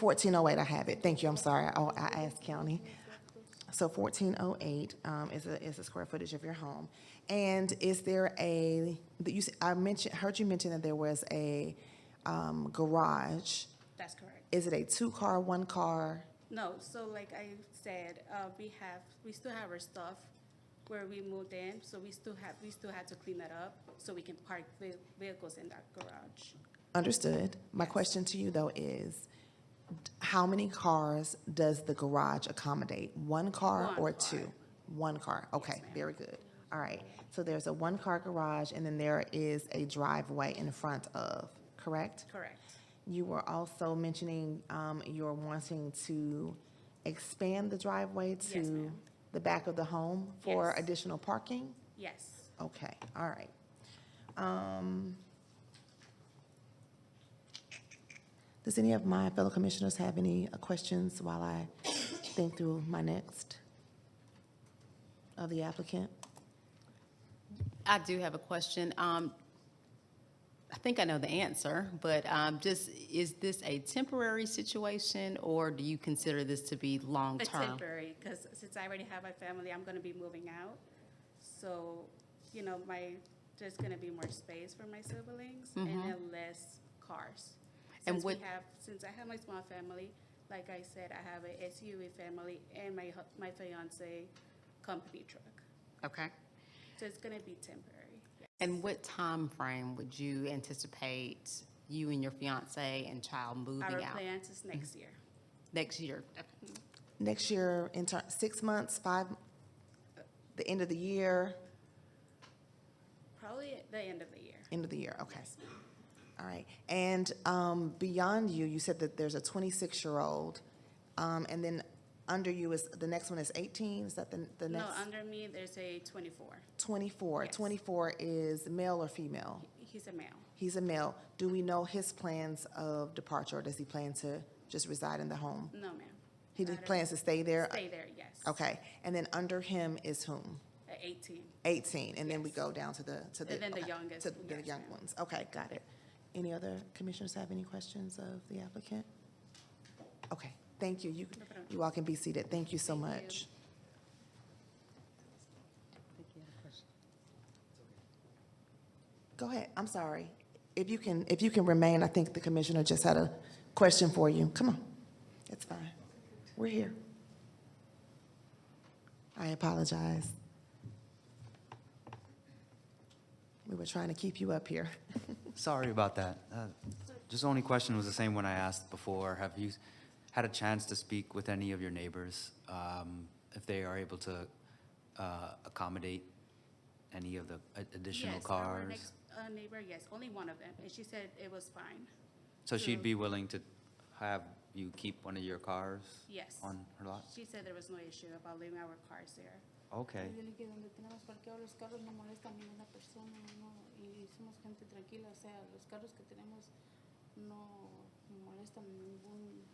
1408, I have it. Thank you, I'm sorry. Oh, I asked county. So 1408 um, is a, is the square footage of your home. And is there a, that you, s- I mentioned, heard you mention that there was a um, garage. That's correct. Is it a two-car, one-car? No, so like I said, uh, we have, we still have our stuff where we moved in, so we still have, we still had to clean that up so we can park ve- vehicles in that garage. Understood. My question to you, though, is d- how many cars does the garage accommodate? One car One or car. two? One car. Okay, very good. All right. So there's a one-car garage, and then there is a driveway in front of, correct? Correct. You were also mentioning um, you're wanting to expand the driveway Yes, to ma'am. the back of the home for Yes. additional parking? Yes. Okay, all right. Um, Does any of my fellow commissioners have any uh, questions while I think through my next of the applicant? I do have a question. Um, I think I know the answer, but um, just, is this a temporary situation, or do you consider this to be It's long-term? temporary, because since I already have a family, I'm gonna be moving out. So, you know, my, there's gonna be more space for my siblings and then less cars. Mm-hmm. And Since we what- have, since I have my small family, like I said, I have a SUV family and my, hu- my fiance company truck. Okay. So it's gonna be temporary. And what time frame would you anticipate you and your fiance and child Our moving out? Mm-hmm. plans is next year. Next year? Next year, in turn, six months, five, the end of the year, Probably at the end of the year. end of the year, okay. All right, and um, beyond you, you said that there's a 26-year-old, um, and then under you is, the next one is 18, is that the the No, next? under me, there's a twenty-four. 24. Yes. 24 is male or female? He's a male. He's a male. Do we know his plans of departure, or does he plan to just reside in the home? No, ma'am. He I just don't- plans to stay Uh, there? Stay there, yes. Okay, and then under him is whom? At eighteen. 18, and then we Yes. go down to the, to the. And then the okay, youngest, To the yes, young ma'am. ones, okay, got it. Any other commissioners have any questions of the applicant? Okay, thank you. You, problem. you all can be seated. Thank you so Thank you. much. Go ahead, I'm sorry. If you can, if you can remain, I think the commissioner just had a question for you. Come on, it's fine. We're here. I apologize. We were trying to keep you up here. Sorry about that. Uh, Just only question was the same one I asked before. Have you had a chance to speak with any of your neighbors? um, If they are able to uh, accommodate any of the a- additional Yes, Our cars? next uh, neighbor, yes, only one of them, and she said it was fine. So she'd be willing to have you keep one of your cars? Yes. On her lot? She said there was no issue about leaving our cars there. Okay. Yo le dije, donde tenemos parqueados los carros no molesta a ninguna persona no, y somos gente tranquila, o sea, los carros que tenemos no molestan ningún,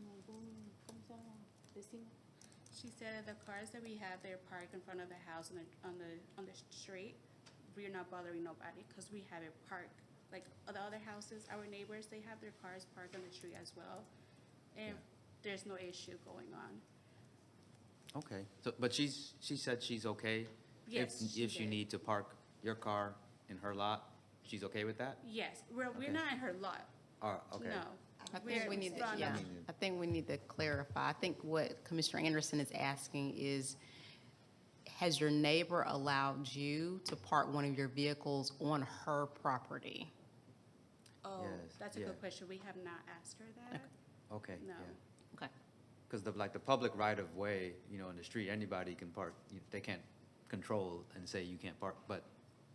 ningún, ¿cómo se llama? Vecino. She said the cars that we have there parked in front of the house on the, on the, on the street, we're not bothering nobody, because we have it parked. Like, the other houses, our neighbors, they have their cars parked on the street as well, and there's no issue going on. Okay. So, but she's, she said she's okay? Yes, If, she if you did. need to park your car in her lot, she's okay with that? Yes, we're, Okay. we're not in her lot, Or, okay. no. I We're think we in need to, front of- yeah, I think we need to clarify. I think what Commissioner Anderson is asking is, has your neighbor allowed you to park one of your vehicles on her property? Oh, Yes, that's a yeah. good question, we have not asked her that. Okay, No. yeah. Okay. Because the, like, the public right-of-way, you know, in the street, anybody can park, You- they can't control and say you can't park, but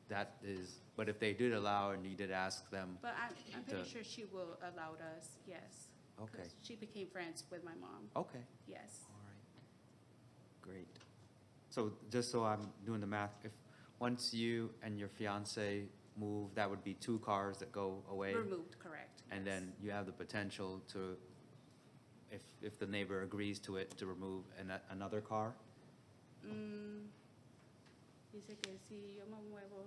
that is, but if they did allow and you did ask them, But I'm, I'm pretty The- sure she will allow us, yes. 'Cause Okay. She became friends with my mom, okay, yes. all right, great. So just so I'm doing the math, if, once you and your fiance move, that would be two cars that go away? Removed, correct. And yes. then you have the potential to, if, if the neighbor agrees to it, to remove an, another car? Mm, Dice que si yo me muevo,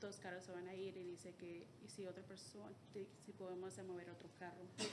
dos carros se van a ir y dice que, y si otra persona, si podemos mover otro carro.